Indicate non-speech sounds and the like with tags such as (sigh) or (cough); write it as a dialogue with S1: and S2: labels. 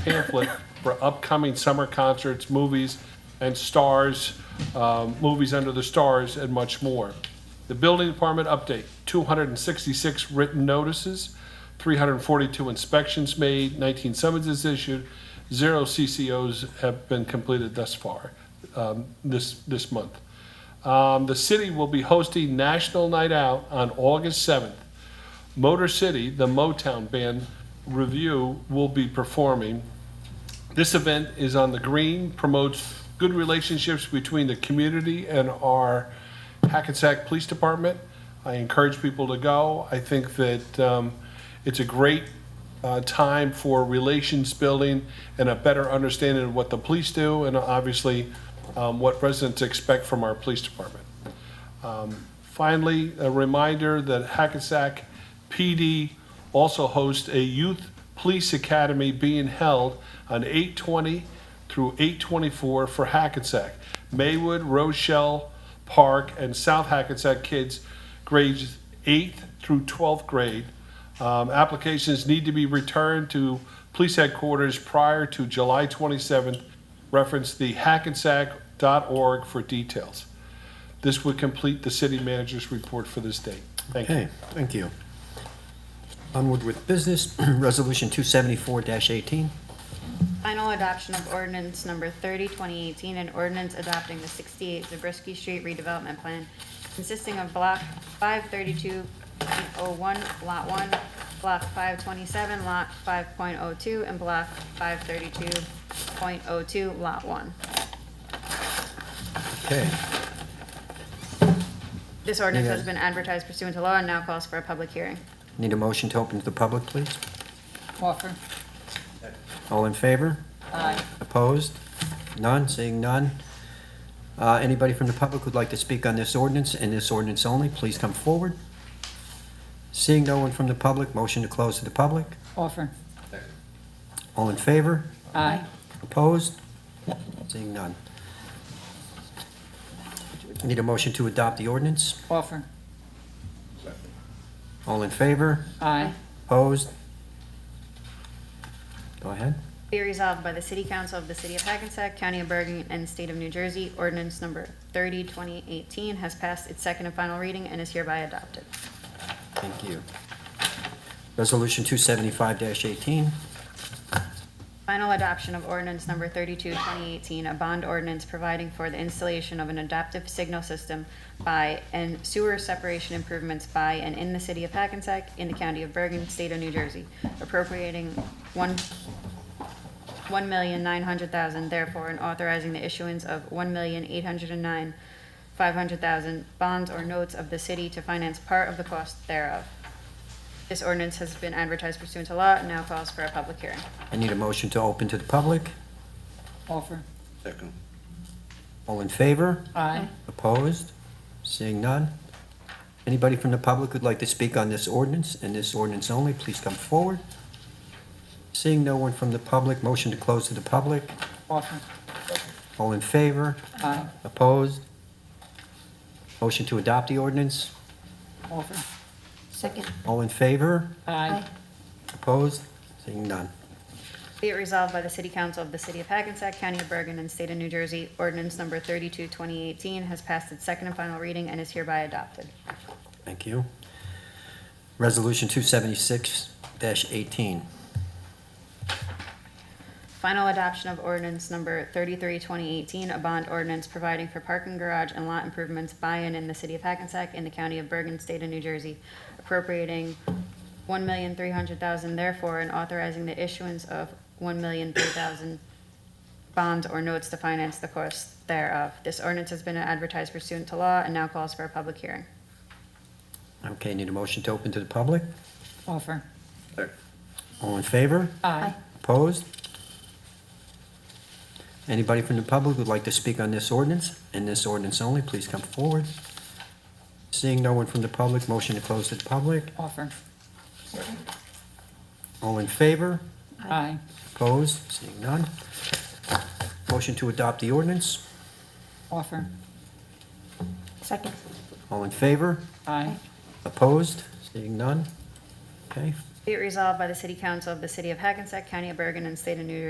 S1: pamphlet for upcoming summer concerts, movies, and stars, um, movies under the stars, and much more. The building department update, 266 written notices, 342 inspections made, 19 summonses issued, zero CCOs have been completed thus far um, this, this month. Um, The city will be hosting National Night Out on August 7th. Motor City, the Motown band review, will be performing. This event is on the green, promotes good relationships between the community and our Hackensack Police Department. I encourage people to go. I think that um, it's a great uh, time for relations building and a better understanding of what the police do and obviously um, what residents expect from our police department. Finally, a reminder that Hackensack PD also hosts a youth police academy being held on 820 through 824 for Hackensack. Maywood, Rochelle Park, and South Hackensack kids grades 8th through 12th grade. Um, Applications need to be returned to police headquarters prior to July 27th. Reference the hackensack.org for details. This would complete the city manager's report for this date. Thank you.
S2: Okay, thank you. Onward with business, (clears throat) Resolution 274-18.
S3: Final adoption of ordinance number 30, 2018, an ordinance adopting the 68 Zabriskie Street redevelopment plan consisting of block 532.01, lot 1, block 527, lot 5.02, and block 532.02, lot 1.
S2: Okay,
S3: This ordinance has
S2: Yeah.
S3: been advertised pursuant to law and now calls for a public hearing.
S2: need a motion to open to the public, please?
S4: Offer.
S2: All in favor?
S4: Aye.
S2: Opposed? None, seeing none. Uh, Anybody from the public who'd like to speak on this ordinance and this ordinance only, please come forward. Seeing no one from the public, motion to close to the public.
S4: Offer.
S2: All in favor?
S4: Aye.
S2: Opposed? Seeing none. Need a motion to adopt the ordinance?
S4: Offer.
S2: All in favor?
S4: Aye.
S2: Opposed? Go ahead.
S3: Be resolved by the City Council of the City of Hackensack, County of Bergen, and State of New Jersey, ordinance number 30, 2018 has passed its second and final reading and is hereby adopted.
S2: Thank you. Resolution 275-18.
S3: Final adoption of ordinance number 32, 2018, a bond ordinance providing for the installation of an adaptive signal system by and sewer separation improvements by and in the city of Hackensack, in the county of Bergen, state of New Jersey, appropriating one, one million nine hundred thousand, therefore, and authorizing the issuance of one million eight hundred and nine, five hundred thousand bonds or notes of the city to finance part of the cost thereof. This ordinance has been advertised pursuant to law and now calls for a public hearing.
S2: I need a motion to open to the public.
S4: Offer.
S5: Second.
S2: All in favor?
S4: Aye.
S2: Opposed? Seeing none. Anybody from the public who'd like to speak on this ordinance and this ordinance only, please come forward. Seeing no one from the public, motion to close to the public.
S4: Offer.
S2: All in favor?
S4: Aye.
S2: Opposed? Motion to adopt the ordinance.
S4: Offer.
S2: All in favor?
S4: Aye.
S2: Opposed? Seeing none.
S3: Be it resolved by the City Council of the City of Hackensack, County of Bergen, and State of New Jersey, ordinance number 32, 2018 has passed its second and final reading and is hereby adopted.
S2: Thank you. Resolution 276-18.
S3: Final adoption of ordinance number 33, 2018, a bond ordinance providing for parking garage and lot improvements by and in the City of Hackensack, in the County of Bergen, State of New Jersey, appropriating $1,300,000 therefore, and authorizing the issuance of $1,003,000 bonds or notes to finance the cost thereof. This ordinance has been advertised pursuant to law and now calls for a public hearing.
S2: Okay, need a motion to open to the public?
S4: Offer.
S5: Second.
S2: All in favor?
S4: Aye.
S2: Opposed? Anybody from the public who'd like to speak on this ordinance and this ordinance only, please come forward. Seeing no one from the public, motion to close to the public.
S4: Offer.
S2: All in favor?
S4: Aye.
S2: Opposed? Seeing none. Motion to adopt the ordinance.
S4: Offer.
S6: Second.
S2: All in favor?
S4: Aye.
S2: Opposed? Seeing none. Okay,
S3: Be it resolved by the City Council of the City of Hackensack County of Bergen and State of New Jersey